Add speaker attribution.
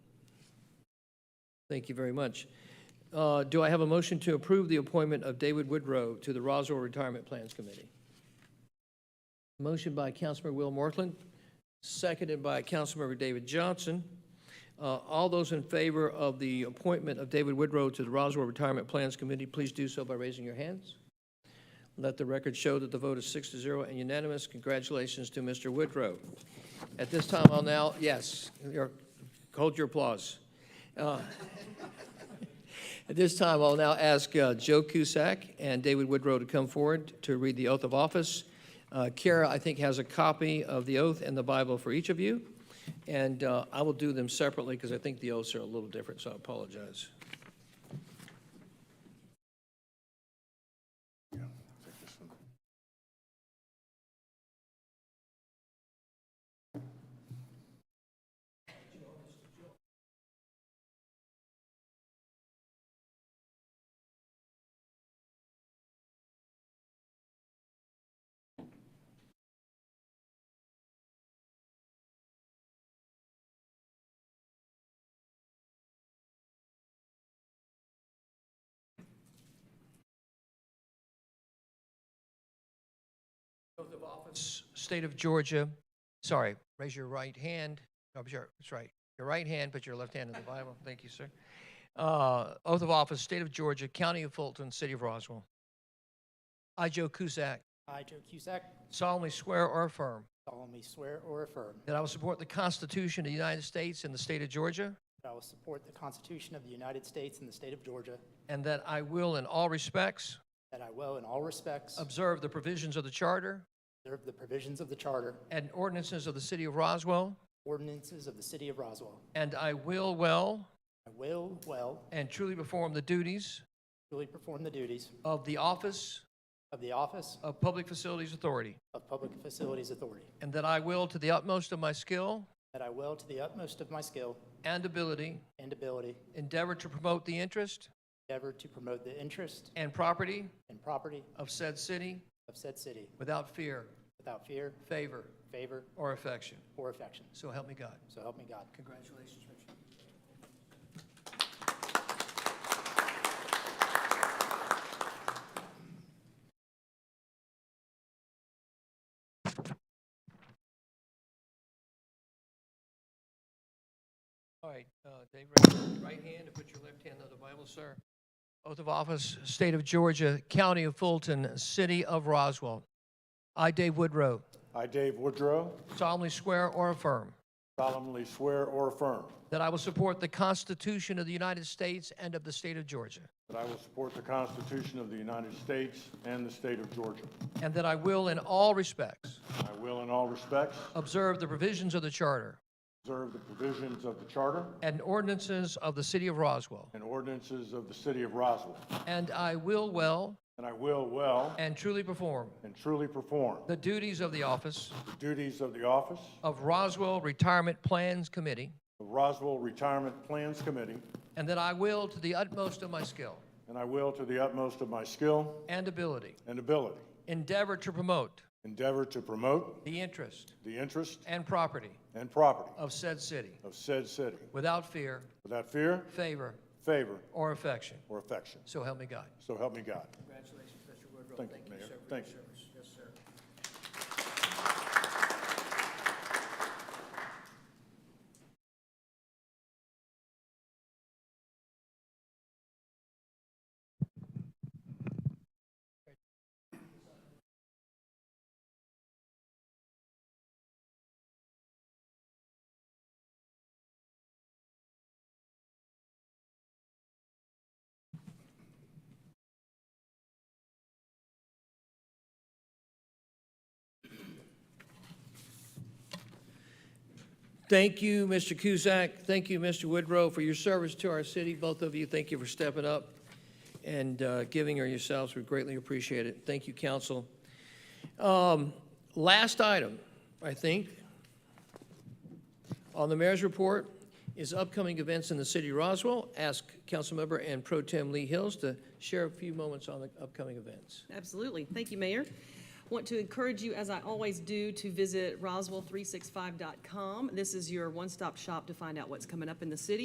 Speaker 1: Thank you very much. Uh, Do I have a motion to approve the appointment of David Woodrow to the Roswell Retirement Plans Committee? Motion by Councilmember Will Mortland, seconded by Councilmember David Johnson. Uh, All those in favor of the appointment of David Woodrow to the Roswell Retirement Plans Committee, please do so by raising your hands. Let the record show that the vote is six to zero and unanimous. Congratulations to Mr. Woodrow. At this time, I'll now, yes, your- hold your applause. At this time, I'll now ask uh, Joe Cusack and David Woodrow to come forward to read the oath of office. Uh, Kara, I think, has a copy of the oath and the Bible for each of you, and uh, I will do them separately because I think the oaths are a little different, so I apologize. Oath of office. State of Georgia, sorry, raise your right hand, no, sure, that's right, your right hand, put your left hand in the Bible, thank you, sir. Uh, Oath of office, State of Georgia, County of Fulton, City of Roswell. I, Joe Cusack,
Speaker 2: I, Joe Cusack,
Speaker 1: solemnly swear or affirm
Speaker 2: solemnly swear or affirm
Speaker 1: that I will support the Constitution of the United States and the state of Georgia,
Speaker 2: that I will support the Constitution of the United States and the state of Georgia,
Speaker 1: and that I will, in all respects,
Speaker 2: that I will, in all respects,
Speaker 1: observe the provisions of the Charter
Speaker 2: observe the provisions of the Charter,
Speaker 1: and ordinances of the City of Roswell,
Speaker 2: ordinances of the city of Roswell.
Speaker 1: and I will well
Speaker 2: I will well
Speaker 1: and truly perform the duties
Speaker 2: duly perform the duties
Speaker 1: of the Office
Speaker 2: of the Office
Speaker 1: of Public Facilities Authority,
Speaker 2: of Public Facilities Authority,
Speaker 1: and that I will, to the utmost of my skill
Speaker 2: that I will, to the utmost of my skill
Speaker 1: and ability,
Speaker 2: and ability,
Speaker 1: endeavor to promote the interest
Speaker 2: endeavor to promote the interest
Speaker 1: and property
Speaker 2: and property
Speaker 1: of said city
Speaker 2: of said city
Speaker 1: without fear,
Speaker 2: without fear,
Speaker 1: favor,
Speaker 2: favor,
Speaker 1: or affection.
Speaker 2: or affection.
Speaker 1: So help me God.
Speaker 2: So help me God.
Speaker 1: Congratulations, Richard. All right, uh, Dave, raise your right hand and put your left hand on the Bible, sir. Oath of office, State of Georgia, County of Fulton, City of Roswell. I, Dave Woodrow,
Speaker 3: I, Dave Woodrow,
Speaker 1: solemnly swear or affirm
Speaker 3: solemnly swear or affirm
Speaker 1: That I will support the Constitution of the United States and of the state of Georgia.
Speaker 3: that I will support the Constitution of the United States and the state of Georgia.
Speaker 1: And that I will, in all respects,
Speaker 3: I will, in all respects,
Speaker 1: observe the provisions of the Charter
Speaker 3: observe the provisions of the Charter
Speaker 1: and ordinances of the city of Roswell.
Speaker 3: and ordinances of the city of Roswell,
Speaker 1: And I will well
Speaker 3: and I will well
Speaker 1: and truly perform
Speaker 3: and truly perform
Speaker 1: the duties of the office
Speaker 3: the duties of the office
Speaker 1: of Roswell Retirement Plans Committee.
Speaker 3: of Roswell Retirement Plans Committee,
Speaker 1: And that I will, to the utmost of my skill
Speaker 3: and I will, to the utmost of my skill
Speaker 1: and ability,
Speaker 3: and ability,
Speaker 1: endeavor to promote
Speaker 3: endeavor to promote
Speaker 1: the interest
Speaker 3: the interest
Speaker 1: and property
Speaker 3: and property
Speaker 1: of said city
Speaker 3: of said city
Speaker 1: without fear,
Speaker 3: without fear,
Speaker 1: favor,
Speaker 3: favor,
Speaker 1: or affection.
Speaker 3: or affection.
Speaker 1: So help me God.
Speaker 3: So help me God.
Speaker 1: Congratulations, Mr. Woodrow.
Speaker 3: Thank you, Mayor. Thank you.
Speaker 1: Yes, sir. Thank you, Mr. Cusack. Thank you, Mr. Woodrow, for your service to our city. Both of you, thank you for stepping up and uh, giving her yourselves. We greatly appreciate it. Thank you, council. Um, Last item, I think, on the mayor's report is upcoming events in the city of Roswell. Ask Councilmember and Pro Tem Lee Hills to share a few moments on the upcoming events.
Speaker 4: Absolutely. Thank you, Mayor. Want to encourage you, as I always do, to visit roswell365.com. This is your one-stop shop to find out what's coming up in the city.